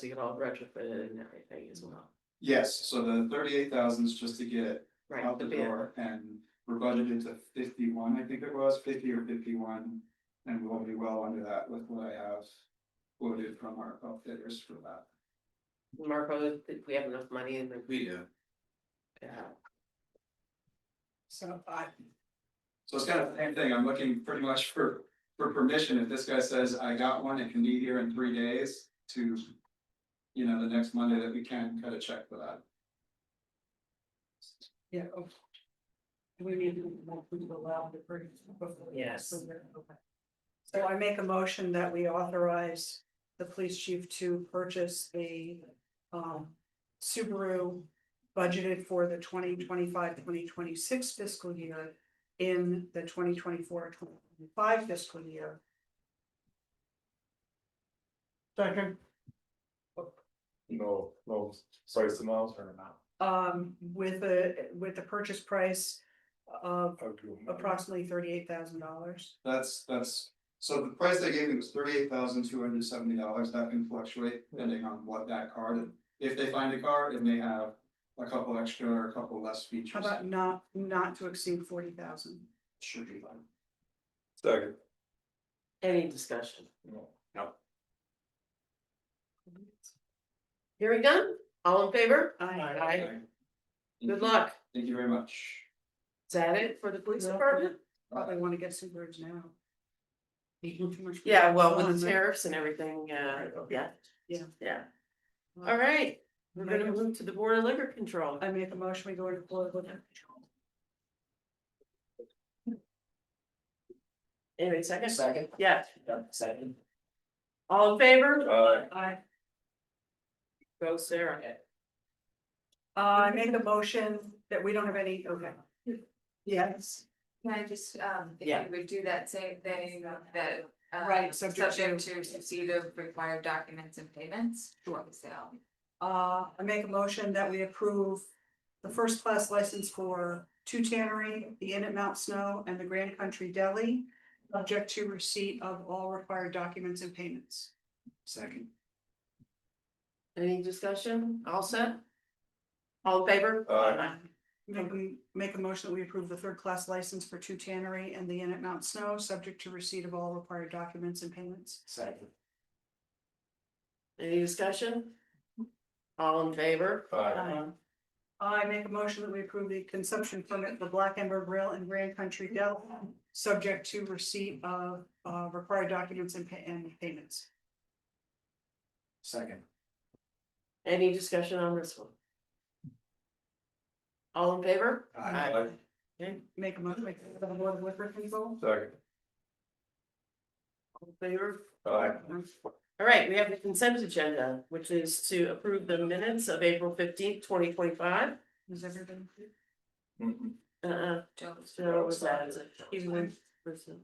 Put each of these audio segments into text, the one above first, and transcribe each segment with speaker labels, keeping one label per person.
Speaker 1: to get all retrofitted and everything as well,
Speaker 2: Yes, so the thirty-eight thousand is just to get it
Speaker 1: right,
Speaker 2: out
Speaker 1: the
Speaker 2: the
Speaker 1: bid,
Speaker 2: door and we're budgeted to fifty-one, I think it was, fifty or fifty-one. And we'll be well under that with what I have quoted from our outfitters for that.
Speaker 1: Marco, if we have enough money in the.
Speaker 2: We do.
Speaker 1: Yeah.
Speaker 3: So I,
Speaker 2: So it's kind of the same thing, I'm looking pretty much for, for permission, if this guy says, I got one, it can be here in three days to. You know, the next Monday that we can cut a check for that.
Speaker 3: yeah. okay. We need to, we allow the bring. before-
Speaker 1: Yes.
Speaker 3: Okay. So I make a motion that we authorize the police chief to purchase a um Subaru. Budgeted for the 2025-2026 fiscal year in the 2024-2025 fiscal year. Second.
Speaker 4: No, no, sorry, it's the miles or not.
Speaker 3: Um, with a, with the purchase price of
Speaker 4: Approximately.
Speaker 3: approximately thirty-eight thousand dollars.
Speaker 2: That's, that's, so the price they gave me was thirty-eight thousand two hundred seventy dollars, that can fluctuate depending on what that card. If they find a card, it may have a couple extra or a couple less
Speaker 3: How
Speaker 2: features,
Speaker 3: about not, not to exceed forty thousand?
Speaker 2: should be fine.
Speaker 4: Second.
Speaker 1: Any discussion?
Speaker 4: No.
Speaker 1: Hearing done, all in favor? Aye.
Speaker 2: Thank you.
Speaker 1: Good luck.
Speaker 2: Thank you very much.
Speaker 1: Is that it for the police
Speaker 3: Yeah.
Speaker 1: department?
Speaker 3: Probably wanna get some birds now. Eating too much.
Speaker 1: Yeah, well, with the
Speaker 3: Fun, right?
Speaker 1: tariffs and everything, uh,
Speaker 4: Right, okay.
Speaker 1: yeah.
Speaker 3: Yeah.
Speaker 1: Yeah, all right, we're gonna
Speaker 3: Make a-
Speaker 1: move to the board of liquor control.
Speaker 3: I make a motion, we go into political. control.
Speaker 1: Anyway, second,
Speaker 5: Second,
Speaker 1: yeah,
Speaker 5: yeah, second.
Speaker 1: all in favor?
Speaker 4: Aye.
Speaker 3: I,
Speaker 1: Go Sarah.
Speaker 3: uh, I make a motion that we don't have any, okay. Yes,
Speaker 6: Can I just, um,
Speaker 1: Yeah.
Speaker 6: if you would do that same thing that, uh,
Speaker 3: Right, subject
Speaker 6: subject to receipt of required documents and payments for the sale.
Speaker 3: uh, I make a motion that we approve the first class license for Two Tannery, the Inn at Mount Snow, and the Grand Country Deli, subject to receipt of all required documents and payments.
Speaker 2: Second.
Speaker 1: Any discussion? All set? All in favor?
Speaker 4: Aye.
Speaker 3: Make a- make a motion that we approve the third class license for Two Tannery and the Inn at Mount Snow, subject to receipt of all required documents and payments.
Speaker 5: Second.
Speaker 1: Any discussion? All in favor?
Speaker 4: Aye.
Speaker 3: Aye. I make a motion that we approve the consumption permit for Black Ember Grill and Grand Country Deli, subject to receipt of uh required documents and pa- and payments.
Speaker 5: Second.
Speaker 1: Any discussion on this one? All in favor?
Speaker 4: Aye.
Speaker 1: Okay,
Speaker 3: Make a motion, make a board of liquor control.
Speaker 4: Second.
Speaker 1: all in favor?
Speaker 4: Aye.
Speaker 1: All right, we have the consent agenda, which is to approve the minutes of April fifteenth, twenty twenty-five.
Speaker 3: Is everybody?
Speaker 4: Mm-mm.
Speaker 6: Uh-uh.
Speaker 1: Uh,
Speaker 6: Don't-
Speaker 1: so what was that? Is it even one person?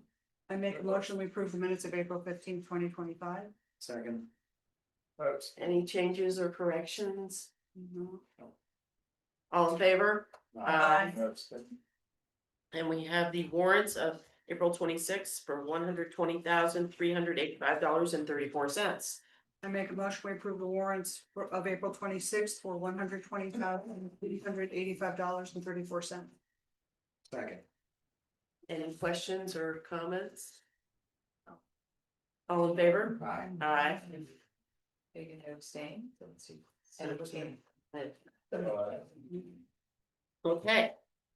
Speaker 3: I make a motion, we approve the minutes of April fifteenth, twenty twenty five.
Speaker 5: Second.
Speaker 4: That's-
Speaker 1: Any changes or corrections?
Speaker 3: No.
Speaker 1: All in favor?
Speaker 3: Aye.
Speaker 4: that's-
Speaker 1: And we have the warrants of April twenty-sixth for one hundred twenty thousand, three hundred eighty-five dollars and thirty-four cents.
Speaker 3: I make a motion, we approve the warrants for- of April twenty-sixth for one hundred twenty thousand, eight hundred eighty-five dollars and thirty-four cents.
Speaker 5: Second.
Speaker 1: Any questions or comments? All in favor?
Speaker 5: Aye.
Speaker 1: Aye.
Speaker 6: Are you gonna abstain? Let's see.
Speaker 1: And abstain.
Speaker 4: Aye.
Speaker 1: Okay.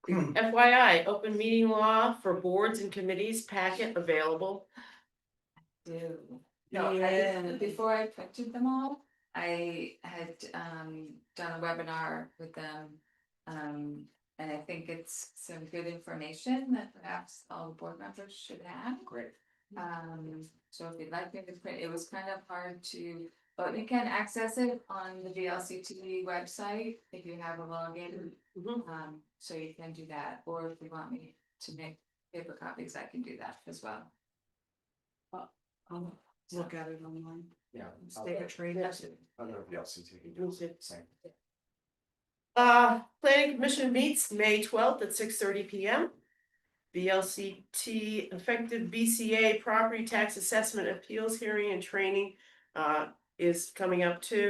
Speaker 1: FYI, open meeting law for boards and committees packet available.
Speaker 6: Do. No, I,
Speaker 1: Yeah.
Speaker 6: before I printed them all, I had um done a webinar with them. Um, and I think it's some good information that perhaps all the board members should have.
Speaker 5: Great.
Speaker 6: Um, so if you'd like me to print, it was kind of hard to, but you can access it on the VLCT website if you have a login.
Speaker 1: Mhm.
Speaker 6: Um, so you can do that, or if you want me to make paper copies, I can do that as well.
Speaker 3: I'll look at it online.
Speaker 5: Yeah.
Speaker 3: Let's Take a trade.
Speaker 1: Yeah.
Speaker 5: Other VLCT.
Speaker 1: We'll see.
Speaker 5: Same.
Speaker 1: Uh, planning commission meets May twelfth at six thirty P M. VLCT effective BCA property tax assessment appeals hearing and training uh is coming up too.